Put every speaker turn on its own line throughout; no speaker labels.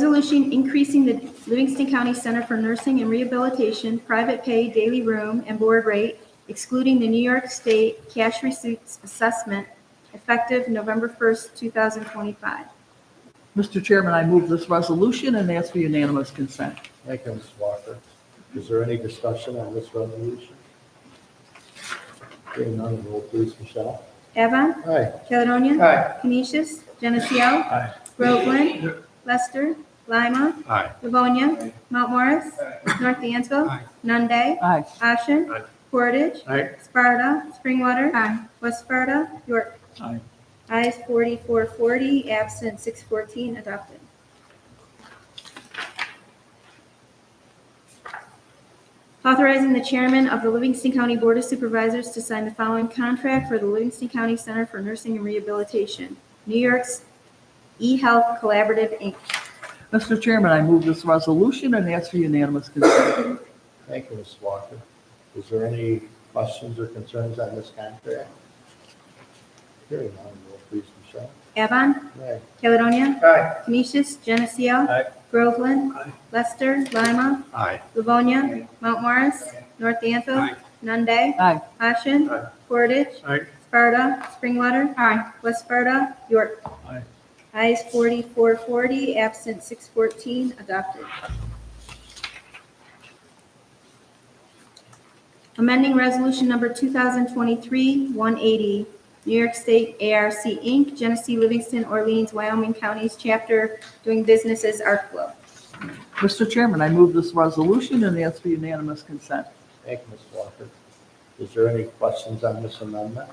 Resolution increasing the Livingston County Center for Nursing and Rehabilitation private pay daily room and board rate excluding the New York State cash receipts assessment effective November 1st, 2025.
Mr. Chairman, I move this resolution and ask for unanimous consent.
Thank you, Ms. Walker. Is there any discussion on this resolution? Hearing none, roll please, Michelle.
Avon,
Aye.
Caledonia.
Aye.
Canisius, Geneseo.
Aye.
Groveland. Lester. Lima.
Aye.
Livonia. Mount Morris. North Dansville.
Aye.
Nunde.
Aye.
Ashen.
Aye.
Portage.
Aye.
Sparta. Springwater. West Sparta. York.
Aye.
Ayes 4440, absent 614, adopted. Authorizing the chairman of the Livingston County Board of Supervisors to sign the following contract for the Livingston County Center for Nursing and Rehabilitation, New York's eHealth Collaborative, Inc.
Mr. Chairman, I move this resolution and ask for unanimous consent.
Thank you, Ms. Walker. Is there any questions or concerns on this contract? Hearing none, roll please, Michelle.
Avon,
Aye.
Caledonia,
Aye.
Canisius, Geneseo,
Aye.
Groveland,
Aye.
Lester, Lima,
Aye.
Livonia, Mount Morris, North Danville,
Aye.
Nunde,
Aye.
Ashen,
Aye.
Portage,
Aye.
Sparta, Springwater, West Sparta, York.
Aye.
Ayes 4440, absent 614, adopted. Amending Resolution Number 2023-180, New York State ARC Inc., Genesee, Livingston, Orleans, Wyoming Counties Chapter, doing business as Arclo.
Mr. Chairman, I move this resolution and ask for unanimous consent.
Thank you, Ms. Walker. Is there any questions on this amendment?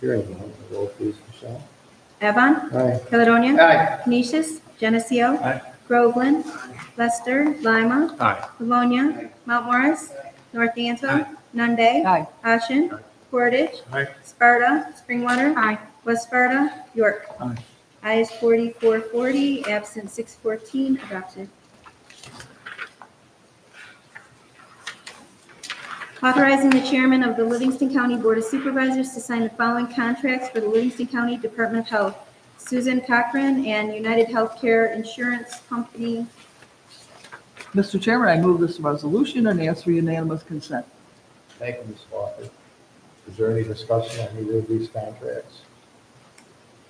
Hearing none, roll please, Michelle.
Evan,
Aye.
Caledonia.
Aye.
Canisius, Geneseo.
Aye.
Groveland. Lester, Lima.
Aye.
Livonia. Mount Morris. North Dansville. Nunde.
Aye.
Ashen.
Aye.
Portage.
Aye.
Sparta. Springwater. West Sparta. York.
Aye.
Ayes 4440, absent 614, adopted. Authorizing the chairman of the Livingston County Board of Supervisors to sign the following contracts for the Livingston County Department of Health. Susan Cochran and United Healthcare Insurance Company.
Mr. Chairman, I move this resolution and ask for unanimous consent.
Thank you, Ms. Walker. Is there any discussion on either of these contracts?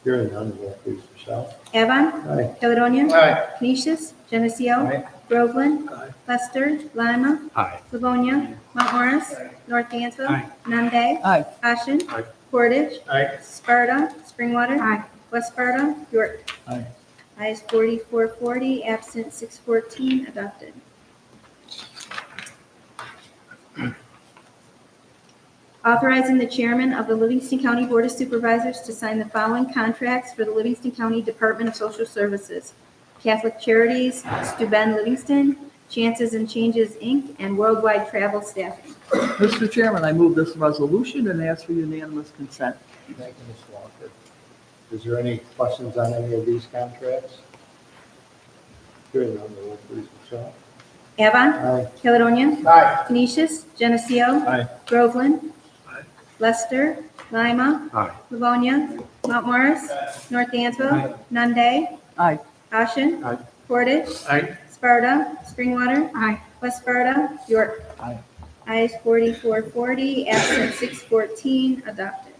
Hearing none, roll please, Michelle.
Avon,
Aye.
Caledonia.
Aye.
Canisius, Geneseo.
Aye.
Groveland.
Aye.
Lester. Lima.
Aye.
Livonia, Mount Morris, North Dansville.
Aye.
Nunde.
Aye.
Ashen.
Aye.
Portage.
Aye.
Sparta. Springwater. West Sparta. York.
Aye.
Ayes 4440, absent 614, adopted. Authorizing the chairman of the Livingston County Board of Supervisors to sign the following contracts for the Livingston County Department of Social Services. Catholic Charities, Steuben Livingston, Chances and Changes, Inc., and Worldwide Travel Staffing.
Mr. Chairman, I move this resolution and ask for unanimous consent.
Thank you, Ms. Walker. Is there any questions on any of these contracts? Hearing none, roll please, Michelle.
Avon,
Aye.
Caledonia,
Aye.
Canisius, Geneseo,
Aye.
Groveland.
Aye.
Lester. Lima.
Aye.
Livonia. Mount Morris. North Dansville. Nunde.
Aye.
Ashen.
Aye.
Portage.
Aye.
Sparta. Springwater. West Sparta. York.
Aye.
Ayes 4440, absent 614, adopted.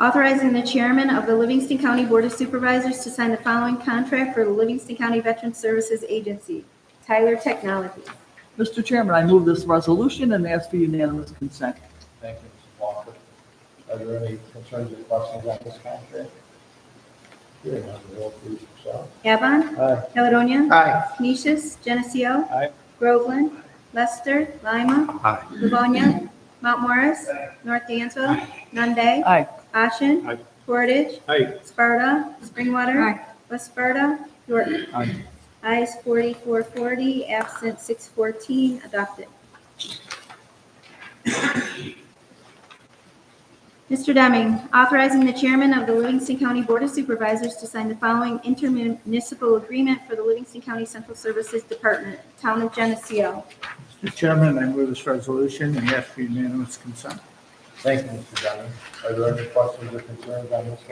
Authorizing the chairman of the Livingston County Board of Supervisors to sign the following contract for the Livingston County Veteran Services Agency, Tyler Technologies.
Mr. Chairman, I move this resolution and ask for unanimous consent.
Thank you, Ms. Walker. Are there any concerns or questions on this contract? Hearing none, roll please, Michelle.
Avon,
Aye.
Caledonia,
Aye.
Canisius, Geneseo.
Aye.
Groveland, Lester, Lima.
Aye.
Livonia, Mount Morris, North Dansville, Nunde.
Aye.
Ashen.
Aye.
Portage.
Aye.
Sparta. Springwater. West Sparta. York.
Aye.
Ayes 4440, absent 614, adopted. Mr. Deming, authorizing the chairman of the Livingston County Board of Supervisors to sign the following intermunicipal agreement for the Livingston County Central Services Department, Town of Geneseo.
Mr. Chairman, I move this resolution and ask for unanimous consent.
Thank you, Mr. Dunning. Are there any questions or concerns on this